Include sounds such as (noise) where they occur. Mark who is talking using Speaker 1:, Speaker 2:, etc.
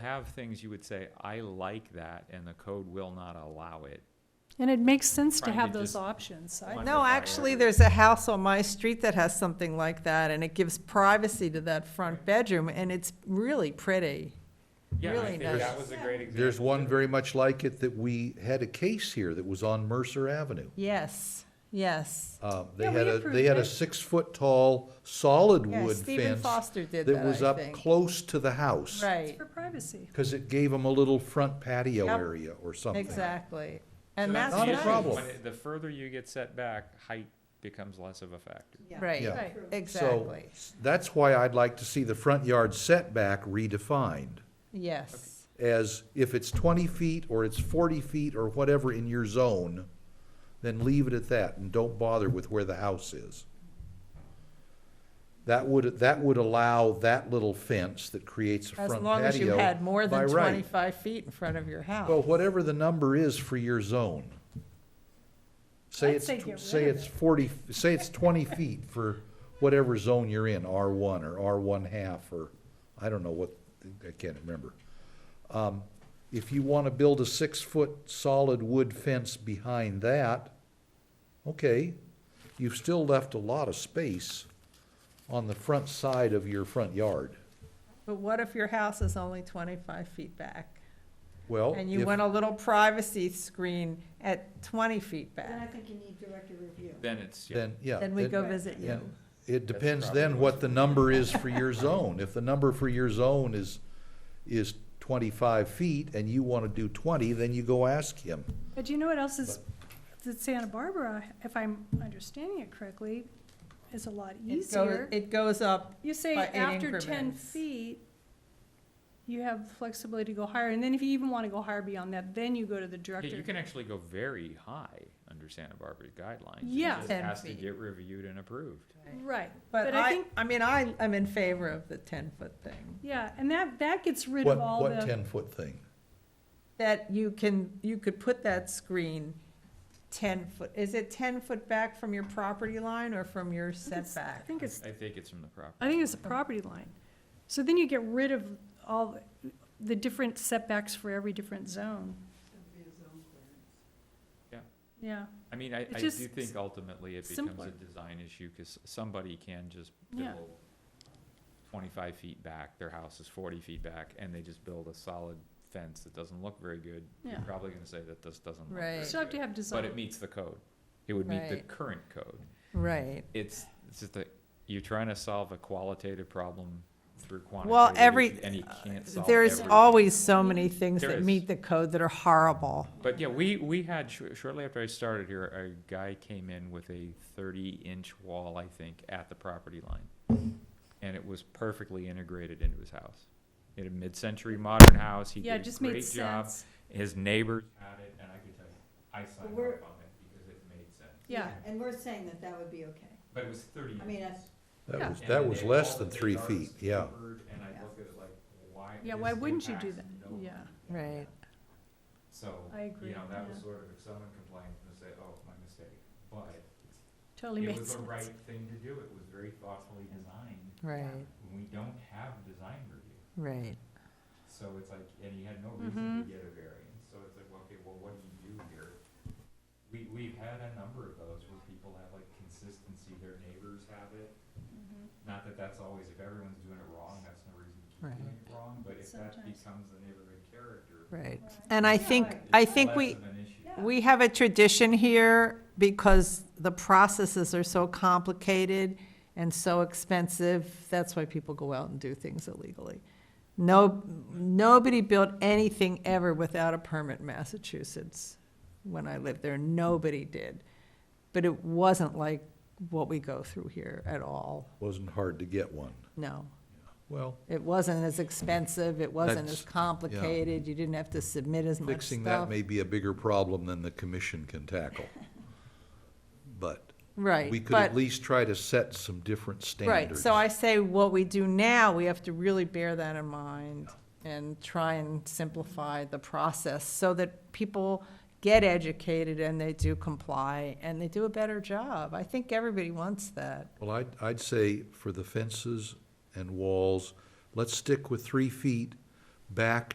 Speaker 1: have things you would say, I like that, and the code will not allow it.
Speaker 2: And it makes sense to
Speaker 1: Trying to
Speaker 2: have those
Speaker 1: just-
Speaker 2: options. I-
Speaker 1: One
Speaker 3: No,
Speaker 1: with
Speaker 3: actually,
Speaker 1: fire.
Speaker 3: there's a house on my street that has something like that, and it gives privacy to that front bedroom, and it's really pretty.
Speaker 1: Yeah, I
Speaker 3: Really
Speaker 1: think
Speaker 3: nice.
Speaker 1: that was a great example.
Speaker 4: There's one very much like it that we had a case here that was on Mercer Avenue.
Speaker 3: Yes, yes.
Speaker 4: Uh, They
Speaker 2: Yeah, we
Speaker 4: had a,
Speaker 2: approved
Speaker 4: they had a
Speaker 2: it.
Speaker 4: six-foot-tall solid
Speaker 3: Yeah,
Speaker 4: wood
Speaker 3: Stephen
Speaker 4: fence
Speaker 3: Foster did
Speaker 4: that was
Speaker 3: that, I
Speaker 4: up
Speaker 3: think.
Speaker 4: close to the house.
Speaker 2: It's
Speaker 3: Right,
Speaker 2: for privacy.
Speaker 4: Because it gave them a little front patio
Speaker 3: Yep.
Speaker 4: area or something.
Speaker 3: exactly.
Speaker 1: So
Speaker 3: And that's
Speaker 1: the
Speaker 4: Not a
Speaker 1: issue.
Speaker 3: nice.
Speaker 4: problem.
Speaker 1: When it- The further you get set back, height becomes less of a factor.
Speaker 3: Right,
Speaker 4: Yeah.
Speaker 2: Right.
Speaker 4: So
Speaker 3: exactly.
Speaker 4: that's why I'd like to see the front yard setback redefined
Speaker 3: Yes,
Speaker 4: as if it's twenty feet or it's forty feet or whatever in your zone, then leave it at that and don't bother with where the house is. That would, that would allow that little fence that creates a front
Speaker 3: as
Speaker 4: patio.
Speaker 3: long as you had more
Speaker 4: by
Speaker 3: than
Speaker 4: right.
Speaker 3: twenty-five feet in front of your
Speaker 4: Well,
Speaker 3: house.
Speaker 4: whatever the number is for your zone. Say
Speaker 2: I'd
Speaker 4: it's,
Speaker 2: say
Speaker 4: tw-
Speaker 2: get
Speaker 4: say
Speaker 2: rid of
Speaker 4: it's forty, say it's twenty feet for whatever zone you're in, R one or R one half or, I don't know what, I can't remember. Um, If you wanna build a six-foot solid wood fence behind that, okay, you've still left a lot of space on the front side of your front yard.
Speaker 3: But what if your house is only twenty-five feet back?
Speaker 4: Well,
Speaker 3: And you
Speaker 4: if-
Speaker 3: want a little privacy screen at twenty feet
Speaker 5: Then I
Speaker 3: back?
Speaker 5: think you need director review.
Speaker 1: Then it's, yeah.
Speaker 4: then, yeah.
Speaker 3: Then we
Speaker 4: then-
Speaker 3: go visit you.
Speaker 4: And it
Speaker 1: That's
Speaker 4: depends
Speaker 1: probably
Speaker 4: then
Speaker 1: what's-
Speaker 4: what the number is for your zone. If the number for your zone is, is twenty-five feet and you wanna do twenty, then you go ask him.
Speaker 2: But you know what else is, that Santa Barbara, if I'm understanding it correctly, is a lot
Speaker 3: It go-
Speaker 2: easier.
Speaker 3: It goes up,
Speaker 2: You say
Speaker 3: by eight
Speaker 2: after ten
Speaker 3: increments.
Speaker 2: feet, you have flexibility to go higher, and then if you even want to go higher beyond that, then you go to the
Speaker 1: Yeah,
Speaker 2: director.
Speaker 1: you can actually go very high under Santa Barbara's guidelines. It
Speaker 2: Yeah.
Speaker 1: just
Speaker 3: 10
Speaker 1: has to
Speaker 3: feet.
Speaker 1: get reviewed and approved.
Speaker 2: Right,
Speaker 3: but
Speaker 2: But I
Speaker 3: I,
Speaker 2: think-
Speaker 3: I mean, I, I'm in favor of the ten-foot thing.
Speaker 2: yeah, and that, that gets rid
Speaker 4: What,
Speaker 2: of all
Speaker 4: what
Speaker 2: the,
Speaker 4: ten-foot thing?
Speaker 3: That you can, you could put that screen ten foot, is it ten foot back from your property line or from your
Speaker 2: it's- I
Speaker 3: setback?
Speaker 2: think it's,
Speaker 1: I think it's from the property.
Speaker 2: I think it's a property line. So then you get rid of all the- the different setbacks for every different zone.
Speaker 1: Yeah.
Speaker 2: Yeah.
Speaker 1: I mean, I,
Speaker 2: It's
Speaker 1: I do
Speaker 2: just
Speaker 1: think ultimately it becomes
Speaker 2: simpler.
Speaker 1: a design issue, because somebody can just
Speaker 2: Yeah.
Speaker 1: build twenty-five feet back, their house is forty feet back, and they just build a solid fence that doesn't look very good. You're
Speaker 2: Yeah.
Speaker 1: probably gonna say that this doesn't look
Speaker 3: Right.
Speaker 1: very
Speaker 2: So I have to
Speaker 1: good,
Speaker 2: have design.
Speaker 1: but it meets the code. It would meet the
Speaker 3: Right.
Speaker 1: current code.
Speaker 3: Right.
Speaker 1: It's, it's just that, you're trying to solve a qualitative problem through
Speaker 3: Well,
Speaker 1: quantitative,
Speaker 3: every- uh,
Speaker 1: issues, and you can't solve every.
Speaker 3: There's always so many things
Speaker 1: There
Speaker 3: that
Speaker 1: is.
Speaker 3: meet the code that are horrible.
Speaker 1: But yeah, we, we had, shor- shortly after I started here, a guy came in with a thirty-inch wall, I think, at the property line. And it was perfectly integrated into his house. He had a mid-century modern house, he
Speaker 2: Yeah, it
Speaker 1: did a
Speaker 2: just made
Speaker 1: great job.
Speaker 2: sense.
Speaker 1: His neighbors had it, and I could tell you, I signed up on
Speaker 5: we're-
Speaker 1: it because it made sense.
Speaker 2: Yeah,
Speaker 5: And we're saying that that would be okay.
Speaker 1: But it was thirty.
Speaker 5: I mean, that's,
Speaker 2: Yeah.
Speaker 4: That was,
Speaker 1: and
Speaker 4: that
Speaker 1: they
Speaker 4: was
Speaker 1: all
Speaker 4: less
Speaker 1: the
Speaker 4: than
Speaker 1: big
Speaker 4: three feet,
Speaker 1: artists
Speaker 4: yeah.
Speaker 1: covered, And I look at it like, why?
Speaker 2: yeah,
Speaker 1: this
Speaker 2: why wouldn't you do
Speaker 1: impacts
Speaker 2: that?
Speaker 1: nobody.
Speaker 2: Yeah,
Speaker 3: Right.
Speaker 1: So,
Speaker 2: I agree,
Speaker 1: you know, that was
Speaker 2: yeah.
Speaker 1: sort of, if someone complained, and say, oh, my mistake, but
Speaker 2: totally
Speaker 1: It
Speaker 2: makes
Speaker 1: was the right
Speaker 2: sense.
Speaker 1: thing to do, it was very thoughtfully designed.
Speaker 3: Right,
Speaker 1: We don't have design review,
Speaker 3: right.
Speaker 1: so it's like, and he had no reason to get a variance, so it's like, well, okay, well, what do you do here? We, we've had a number of those where people have like consistency, their neighbors have it. Not that that's always, if everyone's doing it wrong, that's no reason to keep doing it wrong, but if that
Speaker 2: Sometimes.
Speaker 1: becomes the neighborhood character.
Speaker 3: Right. And I think,
Speaker 5: Right.
Speaker 3: I
Speaker 1: it's
Speaker 3: think
Speaker 1: less
Speaker 3: we,
Speaker 1: of an issue.
Speaker 3: we have a tradition here because the processes are so complicated and so expensive. That's why people go out and do things illegally. No, nobody built anything ever without a permit in Massachusetts when I lived there. Nobody did. But it wasn't like what we go through here at all.
Speaker 4: Wasn't hard to get one.
Speaker 3: No.
Speaker 4: Well,
Speaker 3: It wasn't as expensive. It wasn't
Speaker 4: That's-
Speaker 3: as complicated. You didn't have to submit as much
Speaker 4: fixing that
Speaker 3: stuff.
Speaker 4: may be a bigger problem than the commission can (laughs) tackle. But
Speaker 3: Right.
Speaker 4: we could at
Speaker 3: but-
Speaker 4: least try to set some different standards.
Speaker 3: Right, so I say what we do now, we have to really bear that in mind and try and simplify the process so that people get educated and they do comply and they do a better job. I think everybody wants that.
Speaker 4: Well, I'd, I'd say for the fences and walls, let's stick with three feet back